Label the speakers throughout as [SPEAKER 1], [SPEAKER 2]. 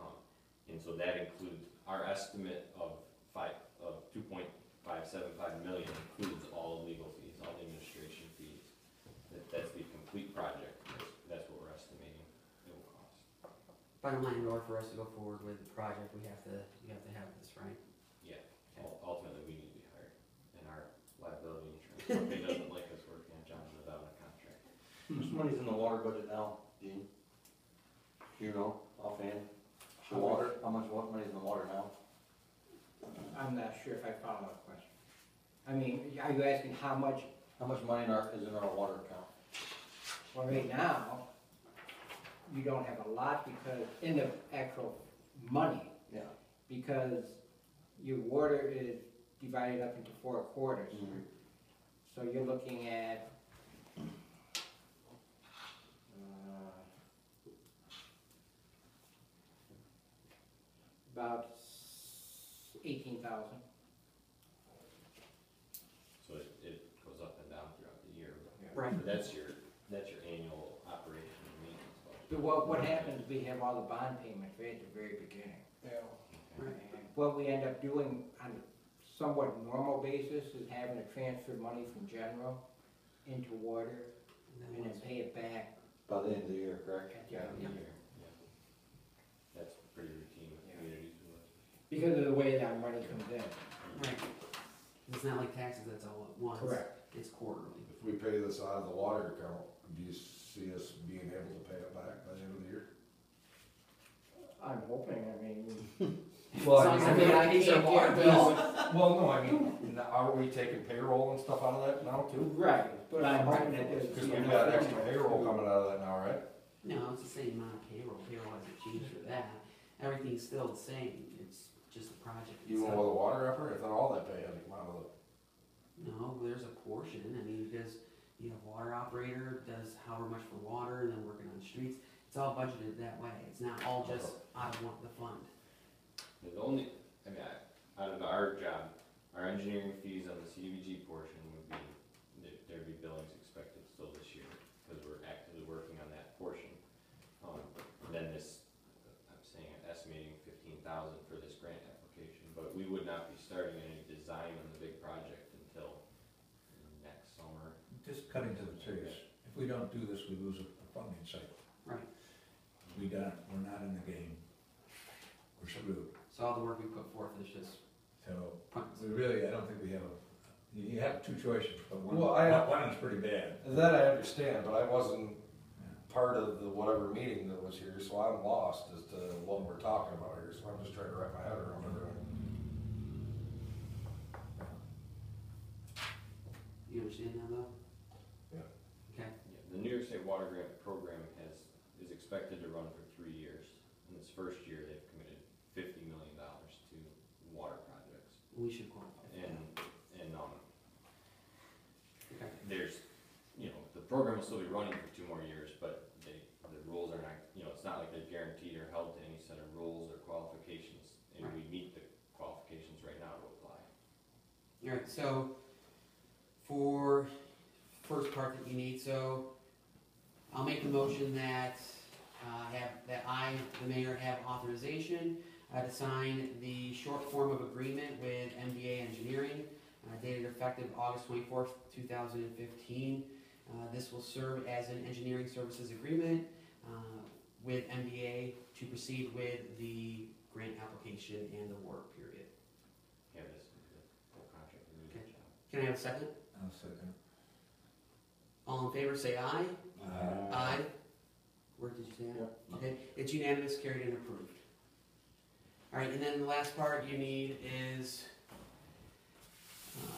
[SPEAKER 1] Um, so that includes, our estimate of five, of two point five seven five million includes all legal fees, all administration fees. That, that's the complete project, that's, that's what we're estimating it will cost.
[SPEAKER 2] Bottom line, in order for us to go forward with the project, we have to, we have to have this, right?
[SPEAKER 1] Yeah, ul- ultimately, we need to be hired, and our liability insurance company doesn't like us working on Johnson without a contract.
[SPEAKER 3] This money's in the water budget now, Dean? You know, offhand? The water, how much wa- money's in the water now?
[SPEAKER 4] I'm not sure if I follow the question. I mean, are you asking how much,
[SPEAKER 3] How much money in our, is in our water account?
[SPEAKER 4] well, right now, you don't have a lot because, in the actual money,
[SPEAKER 3] Yeah.
[SPEAKER 4] because your water is divided up into four quarters.
[SPEAKER 3] Mhm.
[SPEAKER 4] So you're looking at, uh, about eighteen thousand.
[SPEAKER 1] So it, it goes up and down throughout the year. but-
[SPEAKER 2] Right.
[SPEAKER 1] But that's your, that's your annual operation and maintenance budget.
[SPEAKER 4] But what, what happens, we have all the bond payments right at the very beginning.
[SPEAKER 2] Right.
[SPEAKER 4] And what we end up doing on a somewhat normal basis is having to transfer money from general into water
[SPEAKER 2] And then
[SPEAKER 4] and then
[SPEAKER 2] once-
[SPEAKER 4] pay it back
[SPEAKER 3] By the end of the year, correct?
[SPEAKER 4] at the
[SPEAKER 1] Yeah,
[SPEAKER 4] end of the
[SPEAKER 1] yeah.
[SPEAKER 4] year.
[SPEAKER 1] That's pretty routine with
[SPEAKER 4] Yeah.
[SPEAKER 1] communities with us.
[SPEAKER 4] Because of the way that money comes in.
[SPEAKER 2] Right. It's not like taxes, that's all at once. It's quarterly.
[SPEAKER 5] If we pay this out of the water account, do you see us being able to pay it back by the end of the year?
[SPEAKER 4] I'm hoping, I mean.
[SPEAKER 2] Well, I mean, I think so.
[SPEAKER 5] Well, no, I mean, n- are we taking payroll and stuff out of that now too?
[SPEAKER 4] Right, but I'm hoping that there's.
[SPEAKER 5] Cause we got extra payroll coming out of that now, right?
[SPEAKER 2] No, it's the same amount of payroll, payroll hasn't changed for that. Everything's still the same, it's just the project
[SPEAKER 5] Even with
[SPEAKER 2] itself.
[SPEAKER 5] the water effort, if not all that pay had to come out of the,
[SPEAKER 2] No, there's a portion, I mean, because you have water operator, does however much for water, and then working on streets. It's all budgeted that way, it's not all just, I want the fund.
[SPEAKER 1] The only, I mean, I- out of our job, our engineering fees on the CDBG portion would be, there- there'd be billings expected still this year, because we're actively working on that portion. Um, Then this, I'm saying, I'm estimating fifteen thousand for this grant application, but we would not be starting any design on the big project until next summer.
[SPEAKER 6] Just cutting to the chase, if we don't do this, we lose a a funding cycle.
[SPEAKER 2] Right.
[SPEAKER 6] We got, we're not in the game, we're screwed,
[SPEAKER 2] So all the work we put forth is just
[SPEAKER 6] so
[SPEAKER 2] funds.
[SPEAKER 6] we really, I don't think we have a, you have two choices, but one,
[SPEAKER 5] Well, I-
[SPEAKER 6] one one is pretty bad.
[SPEAKER 5] that I understand, but I wasn't part of the whatever meeting that was here, so I'm lost as to what we're talking about here, so I'm just trying to wrap my head around it.
[SPEAKER 2] You understand that though?
[SPEAKER 5] Yeah.
[SPEAKER 2] Okay,
[SPEAKER 1] Yeah, The New York State Water Grant Program has, is expected to run for three years. In this first year, they've committed fifty million dollars to water projects.
[SPEAKER 2] we should qualify. for that.
[SPEAKER 1] And, and, um,
[SPEAKER 2] Okay.
[SPEAKER 1] there's, you know, the program will still be running for two more years, but they, the rules are not, you know, it's not like they're guaranteed or held to any set of rules or qualifications. And we meet the qualifications right now to apply.
[SPEAKER 2] Alright, so for first part that you need, so I'll make a motion that, uh, have, that I, the mayor, have authorization uh, to sign the short form of agreement with MBA Engineering, uh, dated effective August twenty-fourth, two thousand and fifteen. Uh, this will serve as an engineering services agreement, uh, with MBA to proceed with the grant application and the work period.
[SPEAKER 1] Yeah, this is the whole contract, we do the job.
[SPEAKER 2] Can I have a second?
[SPEAKER 6] I'll second.
[SPEAKER 2] All in favor, say aye.
[SPEAKER 6] Uh,
[SPEAKER 2] Aye. Where did you say aye? Okay, it's unanimous, carried and approved. All right, and then the last part you need is,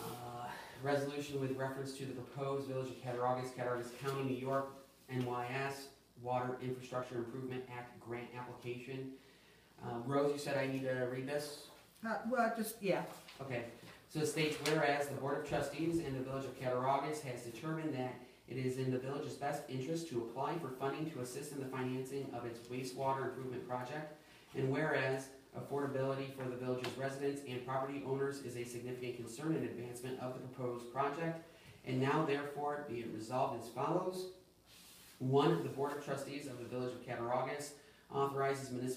[SPEAKER 2] uh, resolution with reference to the proposed Village of Cattaraugus, Cattaraugus County, New York, NYS Water Infrastructure Improvement Act grant application. Uh, Rose, you said I need to read this?
[SPEAKER 7] Uh, well, just, yeah,
[SPEAKER 2] Okay, so it states whereas the Board of Trustees in the Village of Cattaraugus has determined that it is in the village's best interest to apply for funding to assist in the financing of its wastewater improvement project. And whereas affordability for the village's residents and property owners is a significant concern in advancement of the proposed project. And now therefore be it resolved as follows. One, the Board of Trustees of the Village of Cattaraugus authorizes municipal